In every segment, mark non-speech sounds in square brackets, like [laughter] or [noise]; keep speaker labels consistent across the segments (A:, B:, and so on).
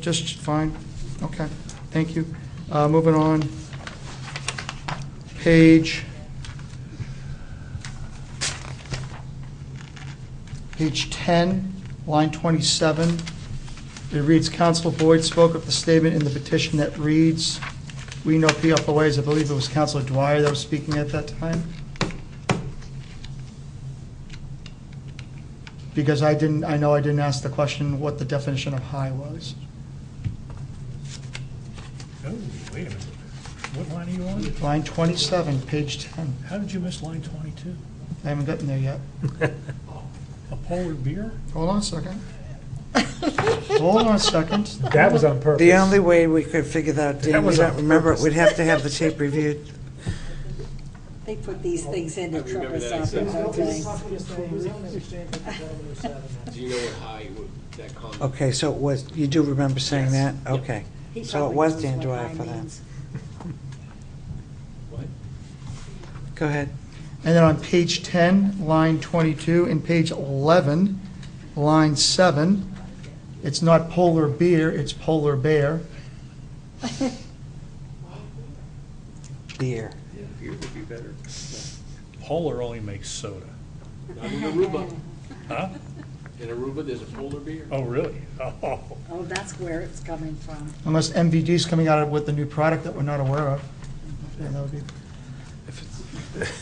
A: Just fine? Okay, thank you. Uh, Moving on. Page... Page 10, line 27. It reads, "Counsel Boyd spoke of the statement in the petition that reads, 'We know PFOAs.'" I believe it was Counselor Dwyer that was speaking at that time. Because I didn't, I know I didn't ask the question what the definition of high was.
B: Oh, wait a minute. What line are you on?
A: Line 27, page 10.
B: How did you miss line 22?
A: I haven't gotten there yet.
B: A polar beer?
A: Hold on a second. Hold on a second.
B: That was on purpose.
C: The only way we could figure that out, Dan, we
B: was
C: don't
B: on
C: remember, it.
B: purpose.
C: we'd have to have the tape reviewed.
D: They [laughs] put these things in to trip us up the whole time.
E: Do you know what high, what that comment?
C: Okay, so it was, you do remember saying that?
E: Yes. Yep.
C: Okay.
D: He
C: So it
D: probably
C: was
D: knows
C: Dan
D: what
C: Dwyer
D: high
C: for that.
D: means.
E: What?
C: Go ahead.
A: And then on page 10, line 22, and page 11, line 7, it's not polar beer, it's polar bear.
C: Beer.
E: Yeah, beer would be better.
B: Polar only makes soda.
E: Not in Aruba.
B: Huh?
E: In Aruba, there's a polar beer.
B: Oh, really? [laughs] Oh,
D: Oh, that's where it's coming from.
A: Unless MVD's coming out with a new product that we're not aware of. Yeah, that would be-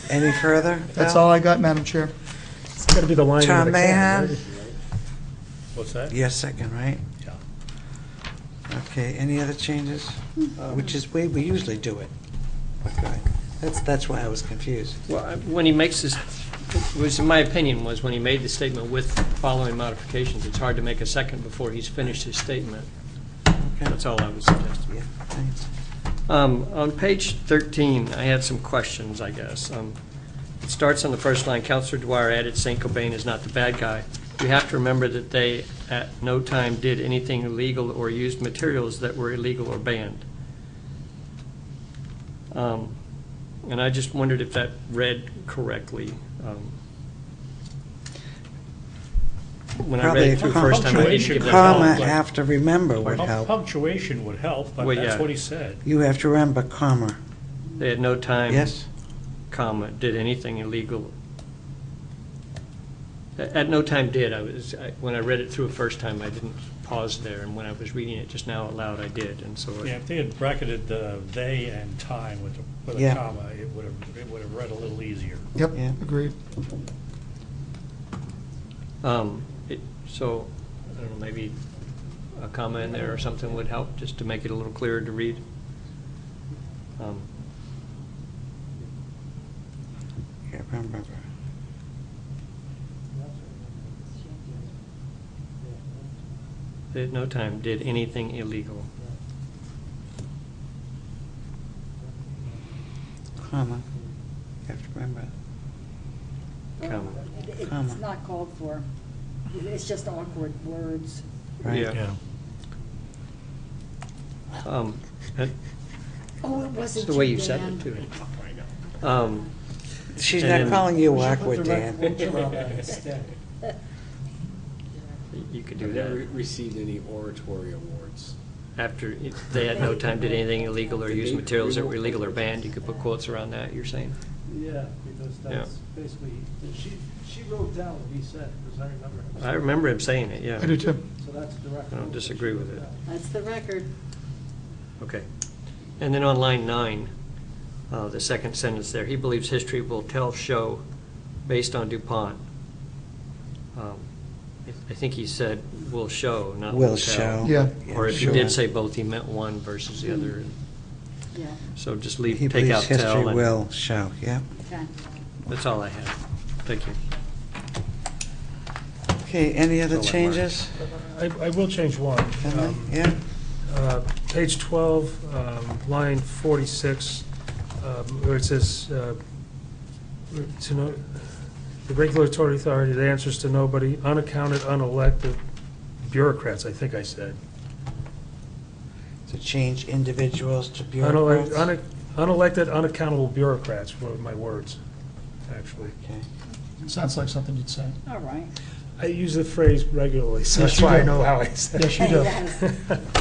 C: Any further?
A: That's
C: Val?
A: all I got, Madam Chair.
F: It's got to be the line in the
C: Tom
F: can,
C: Mahan,
F: right?
B: what's that?
C: your second, right?
B: Yeah.
C: Okay, any other changes?
D: Hmm.
C: Which is, way we usually do it. Okay. That's, that's why I was confused.
G: Well, I- when he makes this, was, in my opinion, was when he made the statement with following modifications, it's hard to make a second before he's finished his statement.
C: Okay.
G: That's all I was suggesting.
C: Yeah, thanks.
G: Um, On page 13, I had some questions, I guess. Um, It starts on the first line, Counselor Dwyer added St. Cobain is not the bad guy. You have to remember that they at no time did anything illegal or used materials that were illegal or banned. Um, And I just wondered if that read correctly. um, When I read
C: Probably
G: it through the first time, I didn't
C: a
G: give
B: Punctuation
G: that
C: comma
G: thought, but-
C: after remember would
B: Punc-
C: help.
B: Punctuation would help, but
G: Well,
B: that's
G: yeah.
B: what he said.
C: You have to remember comma,
G: They had no time.
C: yes?
G: comma, did anything illegal. At at no time did, I was, I- when I read it through the first time, I didn't pause there, and when I was reading it just now aloud, I did, and so. I-
B: Yeah, if they had bracketed the they and time with a- with a
C: Yeah.
B: comma, it would have, it would have read a little easier.
A: Yep,
C: Yeah.
A: agreed.
G: um, it- So, I don't know, maybe a comma in there or something would help, just to make it a little clearer to read. Um,
C: Yeah, remember.
G: They at no time did anything illegal.
C: Comma. You have to remember.
G: Comma.
D: It- It's
C: Comma.
D: not called for. It's just awkward words.
C: Right.
G: Yeah. Um,
C: Uh,
G: and-
D: Oh, it wasn't
G: It's the way
D: you,
G: you said
D: Dan.
G: it, too. Um,
C: She's
G: And
C: not
G: then-
C: calling you awkward, Dan.
G: y- You could
E: I've
G: do
E: never
G: that.
E: received any oratory awards.
G: After, if they had no time, did anything illegal or
E: Did
G: use
E: they
G: materials that were
E: remove-
G: illegal or banned, you could put quotes around that, you're saying?
H: Yeah, because that's basically, she, she wrote down what he said, because I remember him.
G: I remember him saying it, yeah.
A: I do too.
H: So that's direct.
G: I don't disagree with it.
D: [laughs] That's the record.
G: Okay. And then on line nine, uh, the second sentence there, he believes history will tell, show, based on DuPont. Um, I- I think he said will show, not will
C: Will show.
G: tell.
A: Yeah.
G: Or if he
C: sure.
G: did say both, he meant one versus the other.
D: Yeah,
G: So just leave,
C: He
G: take out
C: believes
G: tell.
C: history
G: and-
C: will show, yeah.
D: okay.
G: That's all I have. Thank you.
C: Okay, any other
G: I'll let Mark-
C: changes?
F: I I will change one.
C: Henley?
F: Um,
C: Yeah?
F: uh, Page 12, um, line 46, um, where it says, uh, to no, the regulatory authority that answers to nobody, unaccounted, unelected bureaucrats, I think I said.
C: To change individuals to
F: Unele-
C: bureaucrats?
F: une- Unelected, unaccountable bureaucrats were my words, actually.
C: Okay.
A: Sounds like something you'd say.
D: All right.
F: I use the phrase regularly, so
A: Yes,
F: that's
A: you
F: why I
A: do.
F: know how I said it.
A: Yes, you do.
F: [laughs]
D: Yes.